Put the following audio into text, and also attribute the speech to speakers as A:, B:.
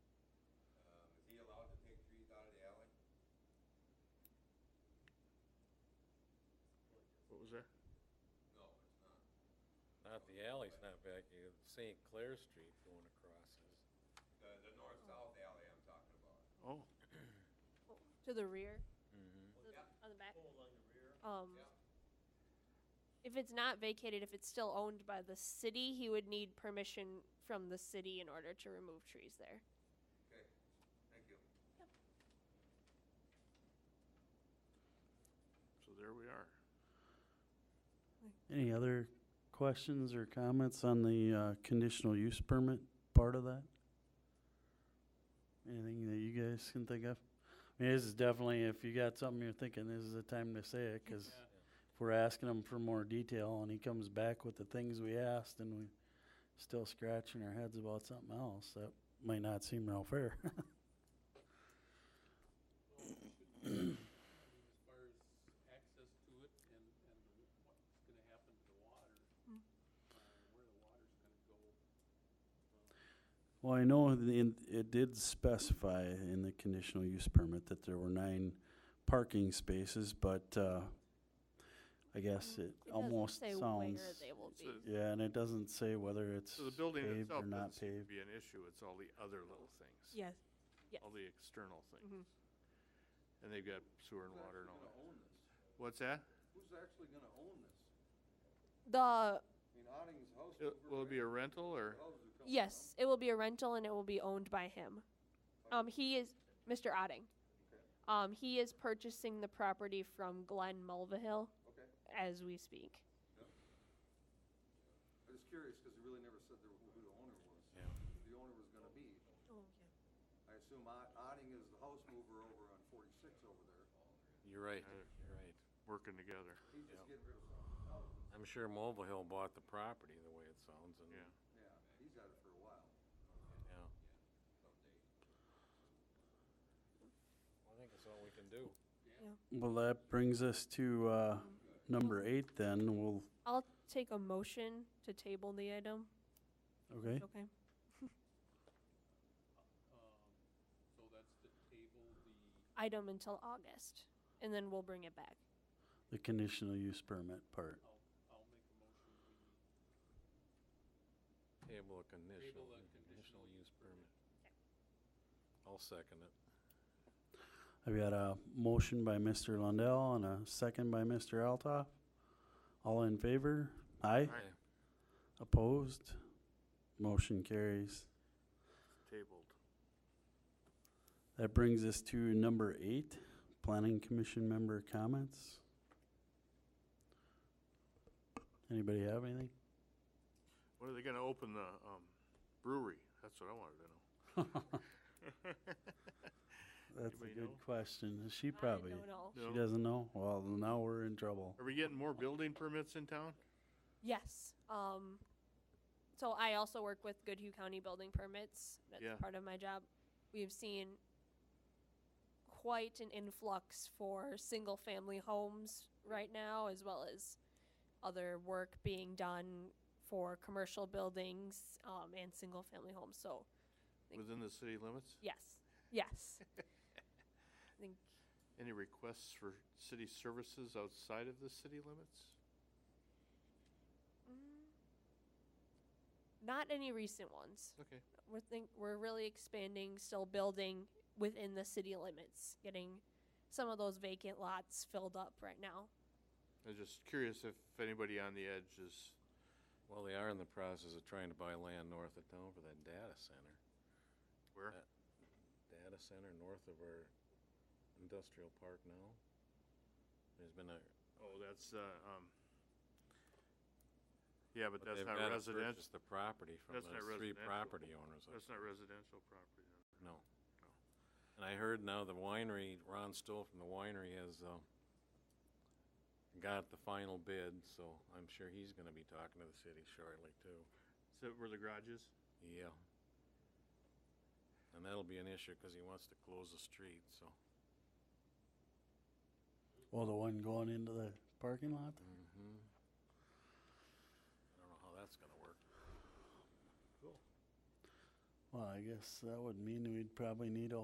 A: Um,
B: is there?
A: No, it's not.
C: Not the alley's not back, you, St. Clair Street going across is,
A: The, the north-south alley I'm talking about.
B: Oh,
D: To the rear,
A: Well,
D: the-
A: Yeah,
D: on the back.
E: along the rear.
D: Um,
A: yeah.
D: if it's not vacated, if it's still owned by the city, he would need permission from the city in order to remove trees there.
A: Okay, thank you.
B: so there we are.
F: Any other questions or comments on the uh, conditional use permit part of that? Anything that you guys can think of? I mean, this is definitely, if you got something you're thinking, this is the time to say it, because if we're asking him for more detail and he comes back with the things we asked and we still scratching our heads about something else, that might not seem real fair.
G: As far as access to it and, and the wa- what's gonna happen to the water, uh, where the water's gonna go.
F: Well, I know the- in- it did specify in the conditional use permit that there were nine parking spaces, but uh, I
D: Mm.
F: guess it
D: It doesn't
F: almost
D: say Where
F: sounds,
D: they will
B: It's
D: be.
B: a-
F: yeah, and it doesn't say whether it's
B: So the building
F: paved or
B: itself
F: not
B: doesn't seem to
F: paved.
B: be an issue, it's all the other little things.
D: Yes. Yes.
B: All the external things. And they've got sewer and
A: Who's
B: water and all
A: actually
B: that.
A: gonna own this?
B: What's that?
A: Who's actually gonna own this?
D: The,
A: I mean, Otting's house.
B: It- Will it be a rental or?
D: yes, it will be a rental and it will be owned by him. Um, he is, Mr. Otting.
A: Okay.
D: Um, he is purchasing the property from Glenn Mulvihill
A: Okay,
D: as we speak.
A: I was curious, cause it really never said there who who the owner was.
C: Yeah.
A: Who The owner was gonna be. I assume Ot- Otting is the house mover over on forty-six over there.
C: you're right, you're right.
B: Working together,
A: He just get rid of some houses.
C: I'm sure Mobile Hill bought the property, the way it sounds, and,
B: yeah.
A: Yeah, he's had it for a while.
C: yeah. I think that's all we can do.
F: Well, that brings us to uh, number eight then, we'll,
D: I'll take a motion to table the item.
F: okay?
D: Okay.
G: Um, so that's to table the,
D: Item until August, and then we'll bring it back.
F: The conditional use permit part.
G: I'll, I'll make a motion, we
C: Table a conditional,
G: Table a
C: conditional
G: conditional
C: use permit. I'll second it.
F: I've got a motion by Mr. Lundell and a second by Mr. Altoff. All in favor? Aye?
B: Aye.
F: Opposed? Motion carries.
B: Tabled.
F: That brings us to number eight, Planning Commission member comments. Anybody have anything?
B: When are they gonna open the, um, brewery? That's what I wanted to know.
F: That's a
B: Anybody know?
F: good question. She probably,
D: I don't know.
B: No.
F: she doesn't know? Well, now we're in trouble.
B: Are we getting more building permits in town?
D: Yes. Um, so I also work with Goodhue County building permits. That's
B: Yeah.
D: part of my job. We've seen quite an influx for single family homes right now, as well as other work being done for commercial buildings um, and single family homes. So,
B: Within the city limits?
D: yes, yes. I think
B: Any requests for city services outside of the city limits?
D: mm, not any recent ones.
B: Okay.
D: we're think we're really expanding, still building within the city limits, getting some of those vacant lots filled up right now.
B: I was just curious if anybody on the edge is,
C: Well, they are in the process of trying to buy land north of town for that data center.
B: where?
C: Uh, Data center north of our industrial park now. There's been a,
B: Oh, that's, uh, um, yeah, but
C: but
B: that's
C: they've
B: not
C: got to
B: residential,
C: purchase the property from
B: That's not
C: those three
B: residential.
C: property owners. I
B: that's not residential property. then.
C: No.
B: No.
C: And I heard now the winery, Ron Stoll from the winery has, uh, got the final bid, so I'm sure he's gonna be talking to the city shortly too.
B: Is that where the garage is?
C: Yeah. And that'll be an issue, cause he wants to close the street, so.
F: Well, the one going into the parking lot?
C: Mm-hmm. I don't know how that's gonna work.
F: Well, I guess that would mean we'd probably need a